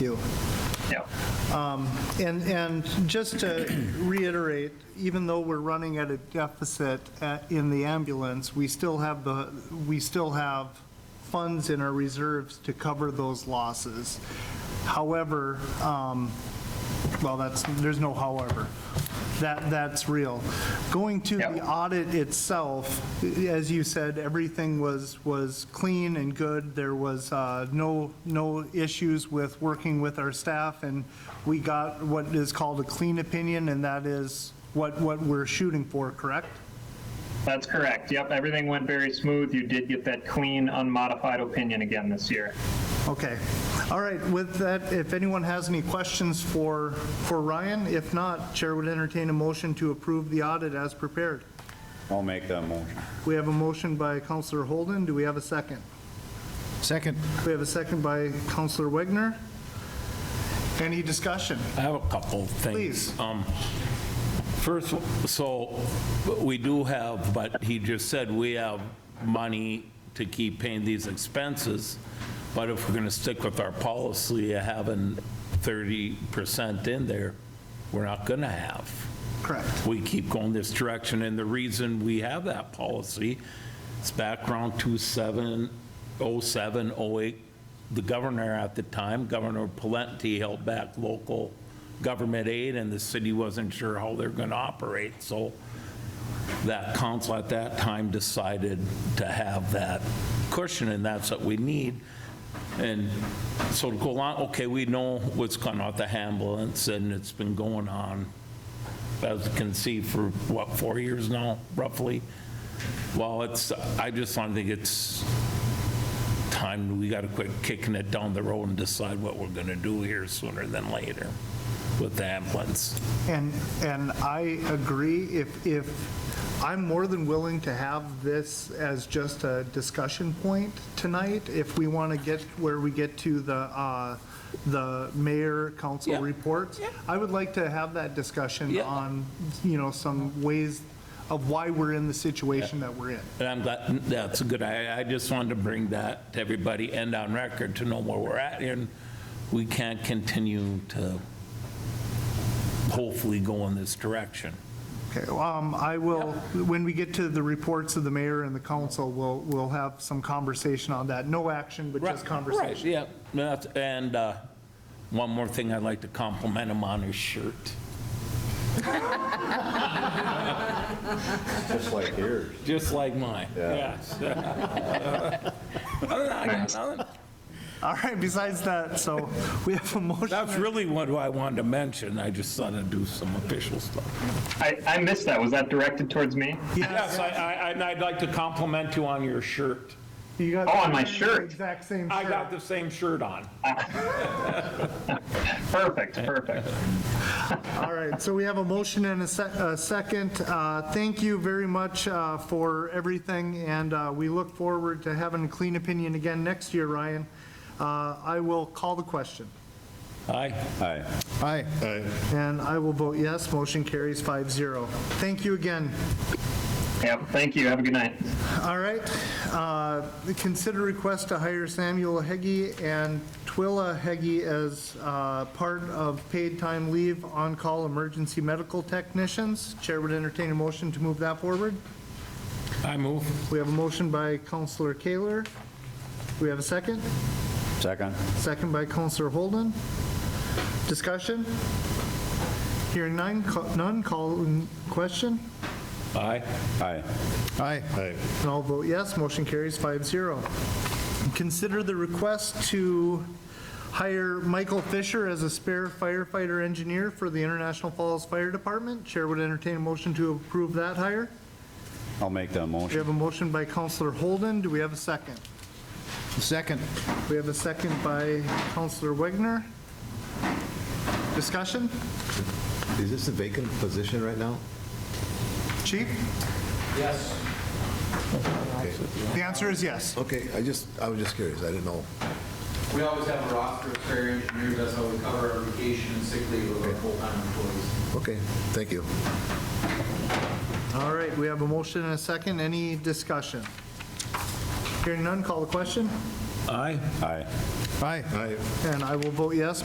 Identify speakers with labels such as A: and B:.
A: you.
B: Yeah.
A: And, and just to reiterate, even though we're running at a deficit at- in the ambulance, we still have the, we still have funds in our reserves to cover those losses. However, um, well, that's, there's no however. That, that's real. Going to the
B: Yep.
A: audit itself, as you said, everything was, was clean and good. There was uh, no, no issues with working with our staff, and we got what is called a clean opinion, and that is what, what we're shooting for, correct?
B: That's correct. Yep, everything went very smooth. You did get that clean, unmodified opinion again this year.
A: Okay. All right, with that, if anyone has any questions for, for Ryan, if not, Chair would entertain a motion to approve the audit as prepared.
C: I'll make that motion.
A: We have a motion by Counselor Holden. Do we have a second?
D: Second.
A: We have a second by Counselor Wegner. Any discussion?
E: I have a couple things.
A: Please.
E: Um, First, so we do have, but he just said we have money to keep paying these expenses, but if we're going to stick with our policy of having 30% in there, we're not going to have
A: Correct.
E: we keep going this direction, and the reason we have that policy is background 2707, 08, the governor at the time, Governor Palenti, held back local government aid, and the city wasn't sure how they're going to operate, so that council at that time decided to have that cushion, and that's what we need. And so to go on, okay, we know what's gone on with the ambulance, and it's been going on as you can see, for what, four years now, roughly? Well, it's, I just don't think it's time, we got to quit kicking it down the road and decide what we're going to do here sooner than later with the ambulance.
A: And, and I agree, if, if, I'm more than willing to have this as just a discussion point tonight, if we want to get where we get to the, uh, the mayor council
E: Yeah.
A: reports.
E: Yeah.
A: I would like to have that discussion
E: Yeah.
A: on, you know, some ways of why we're in the situation that we're in.
E: And I'm glad, that's a good, I, I just wanted to bring that to everybody and on record to know where we're at, and we can't continue to hopefully go in this direction.
A: Okay, um, I will, when we get to the reports of the mayor and the council, we'll, we'll have some conversation on that. No action, but just
E: Right,
A: conversation.
E: Right, yeah. No, that's- And uh, one more thing I'd like to compliment him on his shirt.
C: Just like yours.
E: Just like mine. Yes. Other than I got nothing.
A: All right, besides that, so we have a
E: That's
A: motion.
E: really what I wanted to mention. I just thought I'd do some official stuff.
B: I, I missed that. Was that directed towards me?
E: Yes, I, I, and I'd like to compliment you on your shirt.
A: You got
B: Oh, on my
A: the
B: shirt.
A: Exact same
E: I
A: shirt.
E: got the same shirt on.
B: Perfect, perfect.
A: All right, so we have a motion and a sec- a second. Uh, Thank you very much uh, for everything, and uh, we look forward to having a clean opinion again next year, Ryan. Uh, I will call the question,
E: Aye.
C: Aye.
D: Aye.
A: and I will vote yes. Motion carries 5-0. Thank you again.
B: Yep, thank you. Have a good night.
A: All right, uh, consider request to hire Samuel Heggie and Twilla Heggie as uh, part of paid time leave on-call emergency medical technicians. Chair would entertain a motion to move that forward.
E: I move.
A: We have a motion by Counselor Kaler. We have a second?
C: Second?
A: Second by Counselor Holden. Discussion? Hearing none, ca- none, call in question.
E: Aye.
C: Aye.
D: Aye.
A: And I'll vote yes, motion carries 5-0. Consider the request to hire Michael Fisher as a spare firefighter engineer for the International Falls Fire Department. Chair would entertain a motion to approve that hire.
C: I'll make that
A: We
C: motion.
A: have a motion by Counselor Holden, do we have a second?
D: Second.
A: We have a second by Counselor Wegner. Discussion?
F: Is this a vacant position right now?
A: Chief? Yes. The answer is yes.
F: Okay, I just, I was just curious, I didn't know.
G: We always have a roster of fair engineers, that's how we cover our vacation and sick leave of our full-time employees.
F: Okay, thank you.
A: All right, we have a motion and a second, any discussion? Hearing none, call the question,
E: Aye.
C: Aye.
D: Aye.
F: Aye.
A: and I will vote yes,